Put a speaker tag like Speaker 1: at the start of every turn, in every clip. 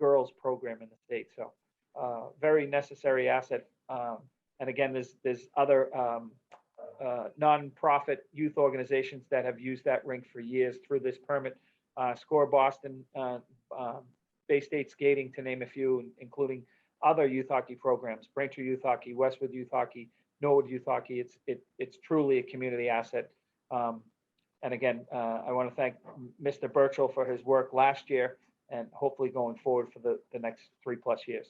Speaker 1: referrals program in the state. So uh, very necessary asset. Um, And again, there's, there's other um, uh, nonprofit youth organizations that have used that rink for years through this permit. Uh, Score Boston, uh, um, Bay State Skating, to name a few, including other youth hockey programs, Braintree Youth Hockey, Westwood Youth Hockey, Norwood Youth Hockey. It's, it, it's truly a community asset. Um, And again, uh, I want to thank Mr. Burchell for his work last year and hopefully going forward for the, the next three plus years.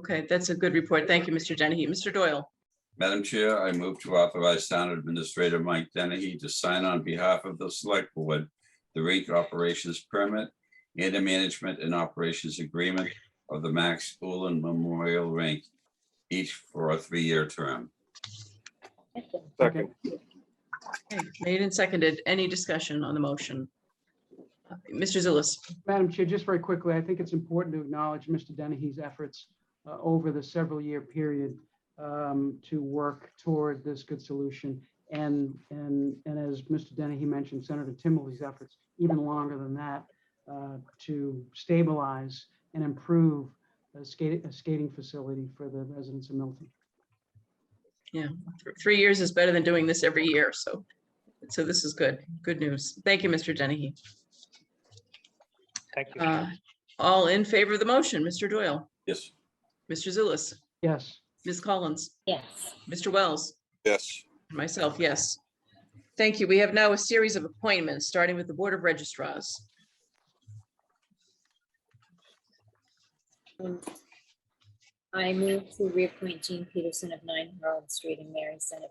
Speaker 2: Okay, that's a good report. Thank you, Mr. Dennehy. Mr. Doyle,
Speaker 3: Madam Chair, I move to authorize Town Administrator Mike Dennehy to sign on behalf of the Select Board the rink operations permit and the management and operations agreement of the Max Ullin Memorial Rink, each for a three-year term.
Speaker 1: Second.
Speaker 2: Okay, made and seconded. Any discussion on the motion? Mr. Zulus,
Speaker 4: Madam Chair, just very quickly, I think it's important to acknowledge Mr. Dennehy's efforts uh, over the several-year period um, to work toward this good solution. And, and, and as Mr. Dennehy mentioned, Senator Timberley's efforts, even longer than that, uh, to stabilize and improve a skating, a skating facility for the residents of Milton.
Speaker 2: th- three years is better than doing this every year, so, so this is good, good news. Thank you, Mr. Dennehy.
Speaker 1: Thank you.
Speaker 2: Uh, All in favor of the motion, Mr. Doyle,
Speaker 3: Yes.
Speaker 2: Mr. Zulus,
Speaker 4: Yes,
Speaker 2: Ms. Collins,
Speaker 5: Yes,
Speaker 2: Mr. Wells,
Speaker 6: yes,
Speaker 2: and myself, yes. Thank you. We have now a series of appointments, starting with the Board of Registrars.
Speaker 5: um, I move to reappoint Jean Peterson of nine Harold Street and Mary Senator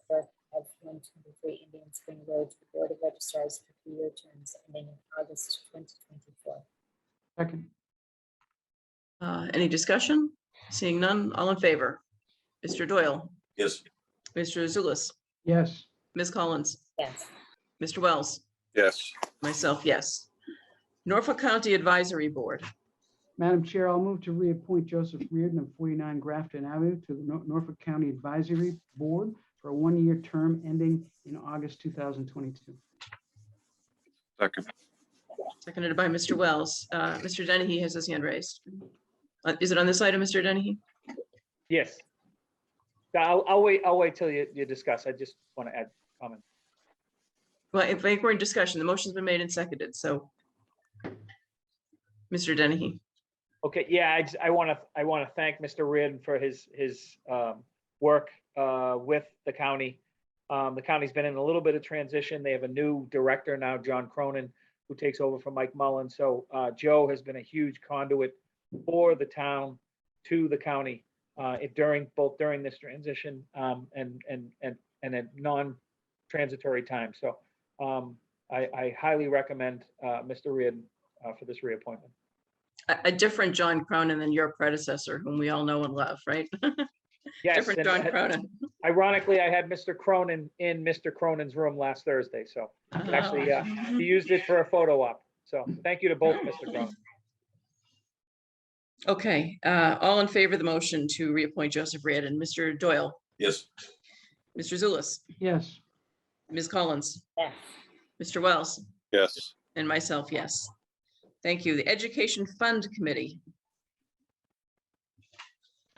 Speaker 5: of one twenty-three Indian Spring Road to the Board of Registrars for three-year terms ending in August twenty twenty-four.
Speaker 4: second,
Speaker 2: Uh, Any discussion? Seeing none, all in favor? Mr. Doyle,
Speaker 3: Yes.
Speaker 2: Mr. Zulus,
Speaker 4: yes,
Speaker 2: Ms. Collins,
Speaker 5: Yes,
Speaker 2: Mr. Wells,
Speaker 6: yes,
Speaker 2: myself, yes. Norfolk County Advisory Board,
Speaker 4: Madam Chair, I'll move to reappoint Joseph Reardon of 49 Grafton Avenue to the Nor- Norfolk County Advisory Board for a one-year term ending in August 2022.
Speaker 6: second,
Speaker 2: seconded by Mr. Wells. Uh, Mr. Dennehy has his hand raised. Uh, Is it on this item, Mr. Dennehy?
Speaker 1: Yes. I'll, I'll wait, I'll wait till you, you discuss. I just want to add comment.
Speaker 2: Well, if we're in discussion, the motion's been made and seconded, so. Mr. Dennehy,
Speaker 1: Okay, yeah, I, just- I want to, I want to thank Mr. Reardon for his, his um, work uh, with the county. Um, The county's been in a little bit of transition. They have a new director now, John Cronin, who takes over from Mike Mullen. So uh, Joe has been a huge conduit for the town to the county uh, it- during, both during this transition um, and, and, and, and at non-transitory time. So um, I, I highly recommend uh, Mr. Reardon uh, for this reappointment.
Speaker 2: a, a different John Cronin than your predecessor, whom we all know and love, right?
Speaker 1: Yes,
Speaker 2: Different
Speaker 1: and-
Speaker 2: John Cronin.
Speaker 1: Ironically, I had Mr. Cronin in Mr. Cronin's room last Thursday, so actually, yeah, he used it for a photo op. So thank you to both, Mr. Cronin.
Speaker 2: Okay, uh, all in favor of the motion to reappoint Joseph Reardon, Mr. Doyle,
Speaker 3: Yes.
Speaker 2: Mr. Zulus,
Speaker 4: Yes,
Speaker 2: Ms. Collins,
Speaker 5: yes,
Speaker 2: Mr. Wells,
Speaker 6: yes,
Speaker 2: and myself, yes. Thank you. The Education Fund Committee,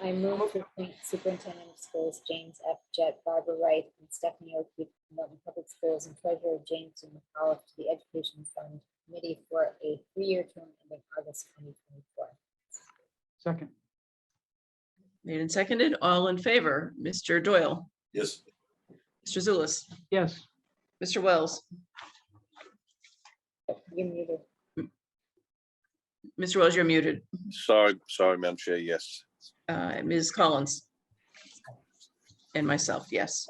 Speaker 5: I move to appoint Superintendent of Schools James F. Jett, Barbara Wright, and Stephanie O'Keefe, of Milton Public Schools, and Treasurer James M. McAuliffe to the Education Fund Committee for a three-year term ending August twenty twenty-four.
Speaker 4: second,
Speaker 2: made and seconded, all in favor, Mr. Doyle,
Speaker 3: Yes.
Speaker 2: Mr. Zulus,
Speaker 4: yes,
Speaker 2: Mr. Wells,
Speaker 5: You muted.
Speaker 2: Mr. Wells, you're muted.
Speaker 6: sorry, sorry, Madam Chair, yes,
Speaker 2: Uh, Ms. Collins. And myself, yes.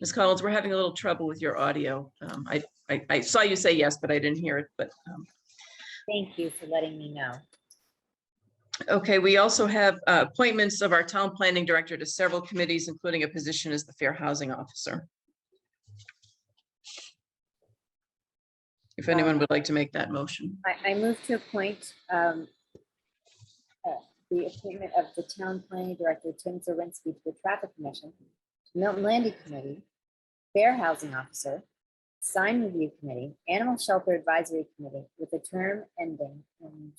Speaker 2: Ms. Collins, we're having a little trouble with your audio. Um, I, I, I saw you say yes, but I didn't hear it, but, um,
Speaker 5: Thank you for letting me know.
Speaker 2: Okay, we also have uh, appointments of our town planning director to several committees, including a position as the fair housing officer. If anyone would like to make that motion,
Speaker 5: I, I move to appoint um, uh, the appointment of the town planning director, Tim Zirinsky, to the traffic commission, Milton Landy Committee, Fair Housing Officer, Sign Review Committee, Animal Shelter Advisory Committee, with a term ending in